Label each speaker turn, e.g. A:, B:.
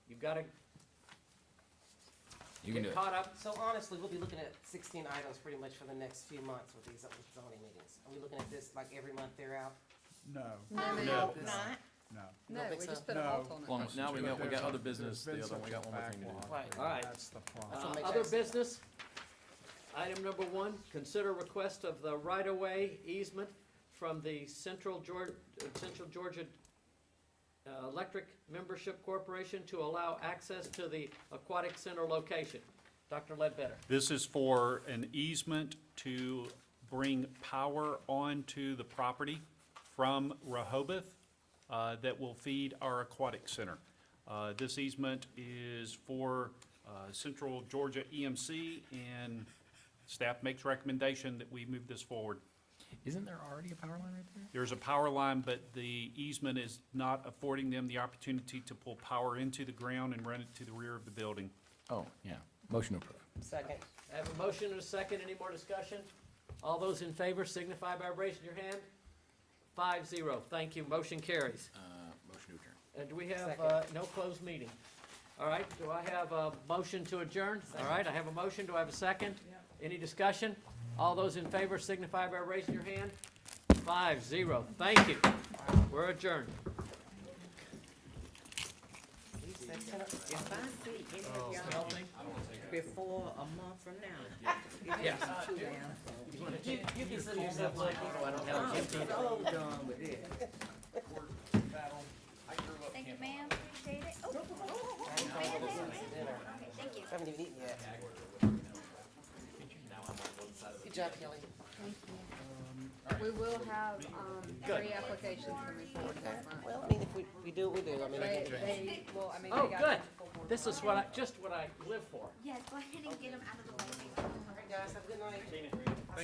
A: gotta
B: You can do
A: get
B: it.
A: caught up.
C: So honestly, we'll be looking at sixteen items pretty much for the next few months with these zoning meetings. Are we looking at this like every month they're out?
D: No,
E: No,
D: No.
E: no,
D: No.
E: not.
D: no.
E: No,
C: think
E: we
C: so?
E: just put a
D: No.
E: halt on it.
B: Long- now we got, we got other
D: There's a-
B: business, the
D: there's
B: other one, we
D: been
B: got
D: such
B: one
D: a
B: more thing to do.
D: backlog,
C: Right.
D: and
A: Alright.
D: That's the
C: That's what
A: Uh,
D: problem.
C: makes
A: Other
C: sense.
A: business, item number one, consider request of the right-of-way easement from the Central Georgia, Central Georgia uh, Electric Membership Corporation to allow access to the aquatic center location. Dr. Ledbetter.
F: This is for an easement to bring power onto the property from Rehoboth uh, that will feed our aquatic center. Uh, This easement is for uh, Central Georgia EMC, and staff makes recommendation that we move this forward.
B: Isn't there already a power line right there?
F: There's a power line, but the easement is not affording them the opportunity to pull power into the ground and run it to the rear of the building.
B: Oh, yeah. Motion to approve.
C: Second.
A: I have a motion and a second, any more discussion? All those in favor signify by raising your hand. Five zero, thank you, motion carries.
B: Uh, motion to adjourn.
A: And do we have,
C: Second.
A: uh, no closed meeting? All right, do I have a motion to adjourn? All right, I have a motion, do I have a second? Any discussion? All those in favor signify by raising your hand. Five, zero, thank you. We're adjourned.
E: You said ten o- If I see any of y'all before a month from now, it is too damn.
C: You, you consider yourself lucky.
E: I'm so done with this.
G: Thank you, ma'am, appreciate it. Oh, ma'am, ma'am, ma'am. Okay, thank you.
C: Haven't even eaten yet. Good job, Kelly.
E: We will have, um, three applications coming forward that month.
C: Well, I mean, if we, we do, what we do. I mean, I
E: They,
C: can-
E: they, well, I mean,
A: Oh,
E: they
A: good.
E: got. good.
A: This is what I, just what I live for.
G: Yes, go ahead and get them out of the way.
C: All right, guys, have a good night.